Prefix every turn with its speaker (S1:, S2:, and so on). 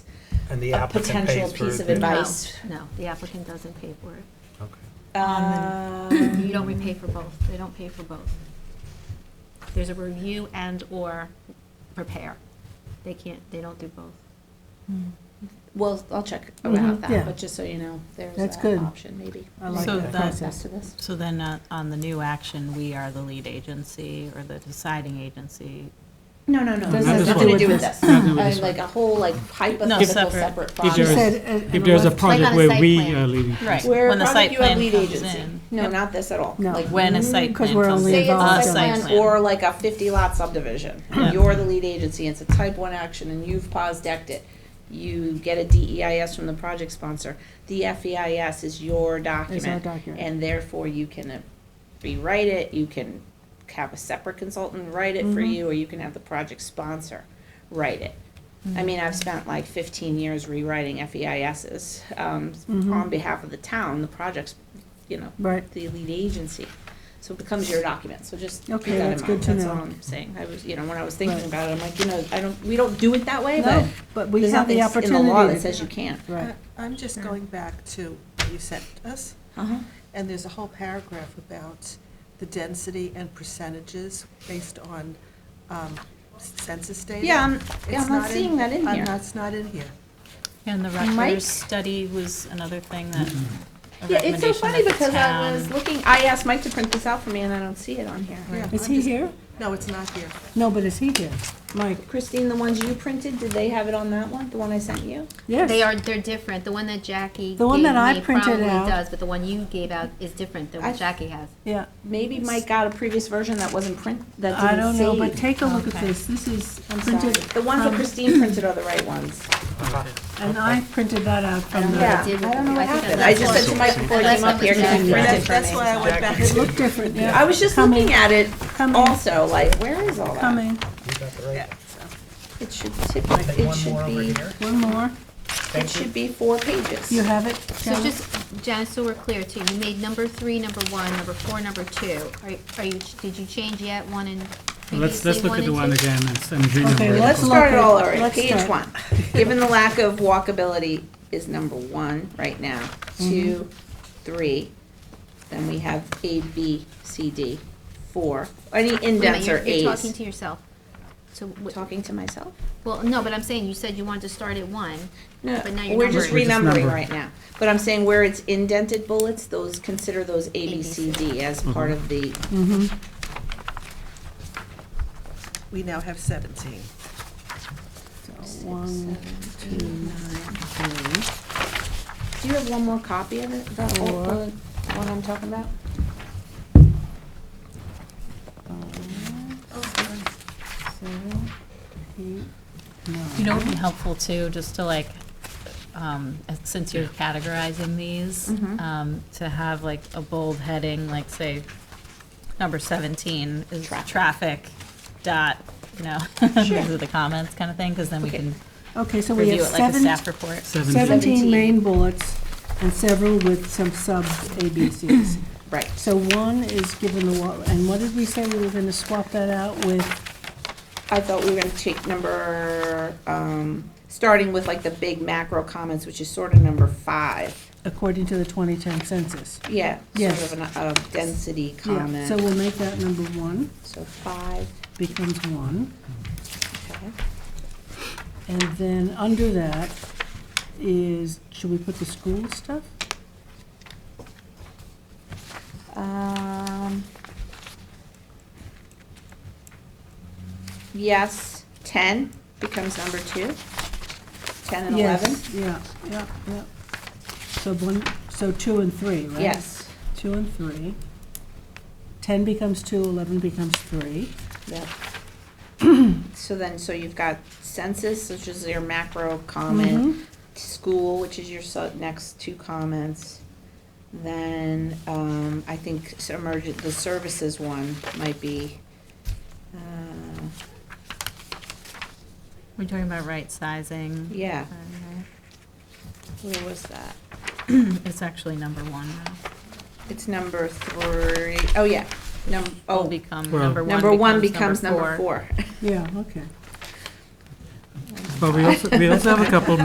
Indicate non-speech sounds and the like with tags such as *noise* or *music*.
S1: And the
S2: a
S1: applicant
S2: potential
S1: pays for
S2: piece of
S1: the-
S2: advice?
S3: No, the applicant doesn't pay for it.
S1: Okay.
S2: *coughs* Um,
S3: You don't repay for both, they don't pay for both. There's a review and/or prepare. They can't, they don't do both.
S2: Well, I'll check around
S4: Mhm, yeah.
S2: that, but just so you know, there's
S4: That's
S2: that
S4: good.
S2: option maybe.
S4: I like
S5: So
S4: that
S5: the-
S4: process.
S2: As to this.
S5: So then uh, on the new action, we are the lead agency or the deciding agency.
S2: No, no, no,
S4: Doesn't
S2: it
S4: have
S2: has nothing to do with this.
S6: Nothing to do with
S2: Uh,
S6: this
S2: Like a whole like hypothetical
S5: separate.
S2: separate
S6: If
S4: She
S6: there
S2: project.
S6: is-
S4: said, and-
S6: If
S4: and
S6: there's a
S4: what's-
S6: project
S3: on a
S6: where
S3: site
S6: we uh,
S3: plan.
S6: are leading.
S5: Right.
S2: Where
S5: When the
S2: probably
S5: site
S2: you have
S5: plan
S2: lead
S5: comes
S2: agency.
S5: in.
S2: No,
S5: Yep.
S2: not this at all.
S4: No.
S2: Like,
S5: When a site
S4: Mm, 'Cause
S5: plan
S4: we're
S5: comes
S4: only
S2: Say
S5: in.
S2: it's a
S4: involved in-
S2: site plan or like a fifty lot subdivision,
S5: Yeah.
S2: you're the lead agency, it's a type one action and you've paused decked it. You get a DEIS from the project sponsor, the FEIS is your
S4: Is our
S2: document,
S4: document.
S2: and therefore you can uh, rewrite it, you can have a separate consultant write it for
S4: Mm-hmm.
S2: you, or you can have the project sponsor write it. I mean, I've spent like fifteen years rewriting FEISs, um,
S4: Mhm.
S2: on behalf of the town, the projects, you know,
S4: Right.
S2: the lead agency. So it becomes your document, so just keep
S4: Okay,
S2: that
S4: that's
S2: in mind,
S4: good to
S2: that's all
S4: know.
S2: I'm saying. I was, you know, when I was thinking
S4: Right.
S2: about it, I'm like, you know, I don't, we don't do it that way, but
S4: No, but we
S2: there's
S4: have
S2: nothing
S4: the
S2: s- in the law
S4: opportunity.
S2: that
S4: to-
S2: says you can't.
S4: Right.
S7: I- I'm just going back to what you sent us,
S2: Uh-huh.
S7: and there's a whole paragraph about the density and percentages based on um, census data.
S2: Yeah, I'm,
S7: It's
S2: yeah, I'm not
S7: in-
S2: seeing that in
S7: I'm
S2: here.
S7: not- It's not in here.
S5: And the
S2: Mike?
S5: Rutgers study was another thing that,
S2: Yeah,
S5: a
S2: it's so
S5: recommendation
S2: funny
S5: that the
S2: because I was
S5: town.
S2: looking, I asked Mike to print this out for me and I don't see it on here.
S7: Yeah,
S4: Is
S7: I'm
S4: he
S7: just-
S4: here?
S7: No, it's not here.
S4: No, but is he here? Mike,
S2: Christine, the ones you printed, did they have it on that one, the one I sent you?
S4: yes.
S3: They are, they're different. The one that Jackie
S4: The one
S3: gave
S4: that I
S3: me
S4: printed
S3: probably
S4: out-
S3: does, but the one you gave out is different than
S2: I-
S3: what Jackie has.
S4: Yeah,
S2: Maybe Mike got a previous version that wasn't print, that
S4: I
S2: didn't
S4: don't
S2: save.
S4: know, but take a look at
S5: Okay.
S4: this. This is
S2: I'm
S4: printed.
S2: sorry. The ones that
S4: from-
S2: Christine printed are the right ones.
S1: Uh-huh.
S4: And I printed that out
S3: I
S4: from
S3: don't know what
S2: Yeah.
S4: the,
S3: it did with
S2: I don't know
S3: the-
S2: what
S3: think
S2: happened. I
S3: that's
S2: just
S3: what-
S2: said to Mike before I
S3: That's
S2: came
S3: what
S2: up here, can
S3: Jackie
S2: you print
S4: did.
S2: it for
S7: That's
S2: me?
S7: why I went back
S4: it
S7: and
S4: looked different,
S2: I
S4: yeah.
S2: was just
S4: Coming.
S2: looking at it
S4: Coming.
S2: also, like, where is all that?
S4: Coming,
S1: You got the right.
S7: Yeah, so.
S2: It should tip,
S1: Take
S2: it
S1: one more
S2: should
S1: over
S2: be,
S1: here.
S4: one more.
S2: it
S1: Thank you.
S2: should be four pages.
S4: You have it?
S3: So
S4: Janet?
S3: just, Janice, so we're clear too, you made number three, number one, number four, number two. Are, are you, did you change yet one and
S6: Let's,
S3: previously
S6: let's look
S3: one
S6: at the one
S3: and two?
S6: again and s- and renumber
S4: Okay,
S6: it.
S2: Let's
S4: Look
S2: start it
S4: at-
S2: all over,
S4: let's
S2: page
S4: start.
S2: one. Given the lack of walkability is number one right now, two, three, then we have A, B, C, D, four, any
S3: Wait a minute,
S2: indents or
S3: you're- You're talking
S2: As.
S3: to yourself. So, what-
S2: Talking to myself?
S3: well, no, but I'm saying, you said you wanted to start at one.
S2: No,
S3: But now you're
S2: we're just
S3: numbering.
S2: renumbering
S6: Number.
S2: right now. But I'm saying where it's indented bullets, those, consider those A, B, C, D as part of the,
S4: Mm-hmm.
S7: We now have 17.
S4: So, One,
S2: do you have one more copy of it, the old,
S4: Four.
S2: the one I'm talking about?
S4: seven, eight, nine.
S5: You know, it'd be helpful too, just to like, um, since you're categorizing these, um, to have like a bold heading, like say, number seventeen is traffic dot, you know, *laughs* these are the comments kind of thing, because then we
S2: Okay.
S5: can
S4: Okay, so we
S5: review
S4: have
S5: it like a
S4: seven,
S5: staff report.
S6: Seven-
S4: seventeen
S2: Seventeen.
S4: main bullets and several with some sub A, B, Cs.
S2: Right.
S4: So one is given the, wa- and what did we say we were gonna swap that out with?
S2: I thought we were gonna take number, um, starting with like the big macro comments, which is sort of number five.
S4: according to the 2010 census.
S2: Yeah,
S4: Yes.
S2: sort of an, a density
S4: Yeah. So
S2: comment.
S4: we'll make that number one,
S2: So five,
S4: becomes one.
S2: okay.
S4: And then under that is, should we put the school stuff?
S2: Um, yes, ten becomes number two. Ten and eleven.
S4: Yes, yeah, yeah, yeah. So one, so two and three, right?
S2: Yes.
S4: Two and three. 10 becomes two, 11 becomes three.
S2: Yep. *clears throat* So then, so you've got census, which is your macro
S4: Mm-hmm.
S2: comment, school, which is your su- next two comments. Then, um, I think s- emergent, the services one might be, uh,
S5: We're talking about right sizing.
S2: yeah,
S5: Um,
S2: where was that?
S5: It's actually number one now.
S2: It's number three, oh, yeah, num,
S5: Will
S2: oh,
S5: become,
S6: Well-
S5: number
S2: number one
S5: one
S2: becomes number four.
S4: Yeah, okay.
S6: But we also, we also have a couple